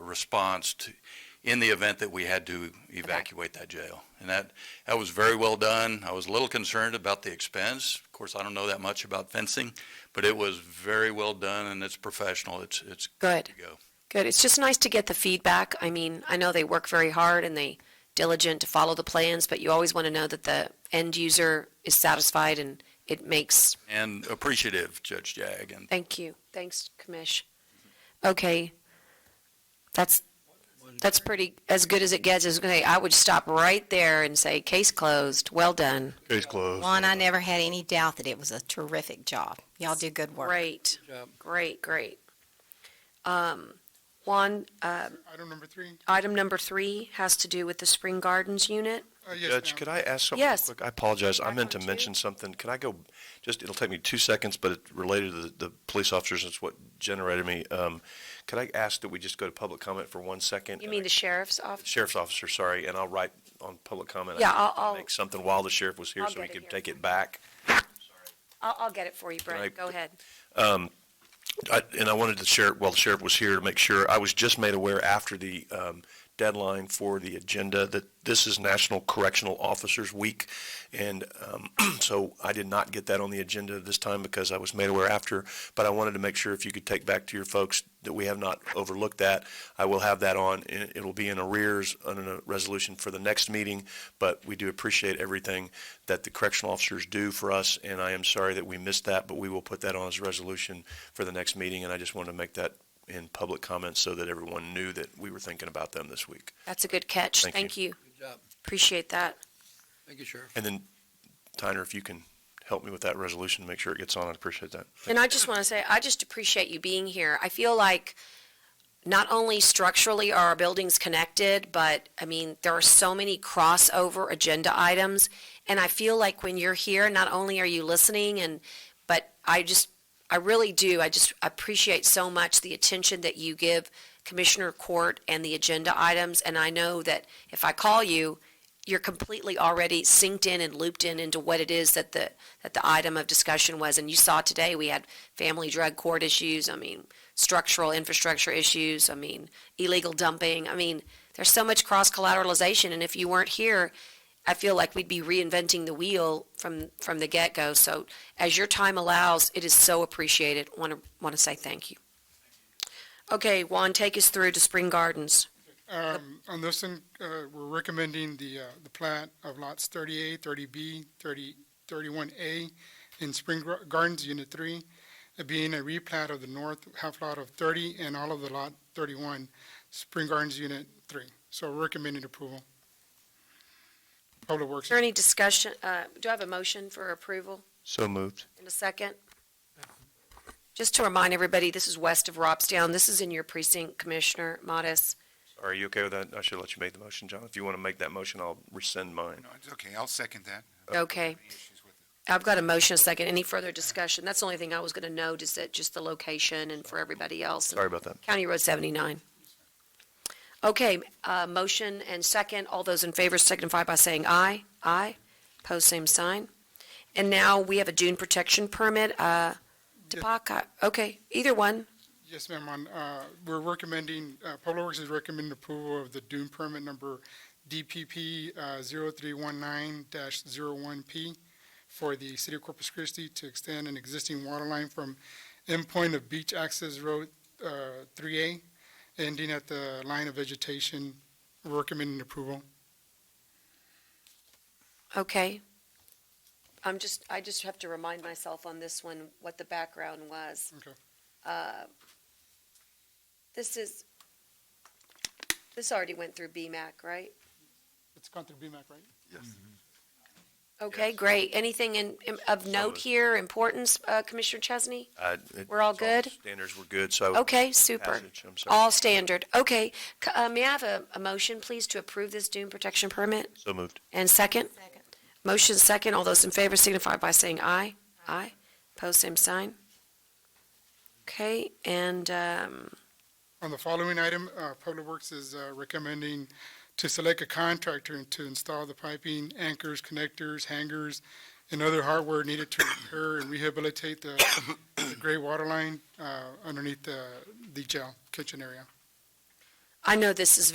response to, in the event that we had to evacuate that jail. And that, that was very well done. I was a little concerned about the expense. Of course, I don't know that much about fencing, but it was very well done and it's professional. It's, it's Good. to go. Good. It's just nice to get the feedback. I mean, I know they work very hard and they diligent to follow the plans, but you always want to know that the end user is satisfied and it makes, And appreciative, Judge Jag, and thank you. Thanks, Commish. Okay. That's, that's pretty, as good as it gets. As, okay, I would stop right there and say, case closed. Well done. Case closed. Juan, I never had any doubt that it was a terrific job. Y'all do good work. Great. Great, great. Um, Juan, uh, Item number three? item number three has to do with the Spring Gardens unit. Uh, yes, Judge, ma'am. could I ask something? Oh, Yes. quick? I apologize. I meant to Microphone two. mention something. Can I go, just, it'll take me two seconds, but it's related to the, the police officers. It's what generated me. Um, could I ask that we just go to public comment for one second? You mean the sheriff's office? Sheriff's officer, sorry, and I'll write on public comment. I Yeah, need I'll- to I'll- Make something while the sheriff was here I'll so we get it could here. take it back. I'll, I'll get it for you, Brent. Right. Go ahead. I- And I wanted to share, well, the sheriff was here to make sure, I was just made aware after the um, deadline for the agenda that this is National Correctional Officers Week. And um, so I did not get that on the agenda this time because I was made aware after. But I wanted to make sure if you could take back to your folks that we have not overlooked that. I will have that on, and it'll be in arrears under a resolution for the next meeting. But we do appreciate everything that the correctional officers do for us, and I am sorry that we missed that, but we will put that on as a resolution for the next meeting, and I just wanted to make that in public comment so that everyone knew that we were thinking about them this week. That's a good catch. Thank Thank you. Good job. Appreciate that. Thank you, Sheriff. And then, Tyner, if you can help me with that resolution, to make sure it gets on, I'd appreciate that. And I just want to say, I just appreciate you being here. I feel like not only structurally are our buildings connected, but I mean, there are so many crossover agenda items. And I feel like when you're here, not only are you listening and, but I just, I really do. I just appreciate so much the attention that you give Commissioner Court and the agenda items. And I know that if I call you, you're completely already synced in and looped in into what it is that the, that the item of discussion was. And you saw today, we had family drug court issues, I mean, structural infrastructure issues, I mean, illegal dumping. I mean, there's so much cross collateralization. And if you weren't here, I feel like we'd be reinventing the wheel from, from the get-go. So as your time allows, it is so appreciated. Want to, want to say thank you. Okay, Juan, take us through to Spring Gardens. Um, on this one, uh, we're recommending the, uh, the plat of lots 30A, 30B, 30, 31A in Spring Gar- Gardens, Unit 3, uh, being a replat of the north half lot of 30 and all of the lot 31, Spring Gardens, Unit 3. So we're recommending approval. Public Works. Is there any discussion, uh, do I have a motion for approval? So moved. In a second. Just to remind everybody, this is west of Robstown. This is in your precinct, Commissioner Modis. Are you okay with that? I should let you make the motion, John. If you want to make that motion, I'll rescind mine. No, it's okay. I'll second that. Okay. I've got a motion, a second. Any further discussion? That's the only thing I was going to note is that just the location and for everybody else. Sorry about that. County Road 79. Okay, uh, motion and second. All those in favor signify by saying aye. Aye. Pose same sign. And now we have a dune protection permit, uh, Depaka, okay, either one. Yes, ma'am, on, uh, we're recommending, uh, Public Works is recommending approval of the dune permit number DPP, uh, 0319-01P for the City of Corpus Christi to extend an existing water line from endpoint of Beach Access Road, uh, 3A, ending at the line of vegetation. We're Recommending approval. Okay. I'm just, I just have to remind myself on this one what the background was. Okay. Uh, This is, this already went through BMAC, right? It's gone through BMAC, right? Okay, great. Anything in, in- of note moved. here, importance, uh, Commissioner Chesney? I- it- We're all it's good? Standards were good, so. Okay, super. Oh, Passage, I'm sorry. All standard. Okay. C- uh, May I have a, a motion, please, to approve this dune protection permit? So moved. And second? Second. Motion second. All those in favor signify by saying aye. Aye. Pose same sign. Okay, and, um, On the following item, uh, Public Works is uh, recommending to select a contractor to install the piping, anchors, connectors, hangers, and other hardware needed to repair and rehabilitate the the gray water line uh, underneath the the jail kitchen area. I know this is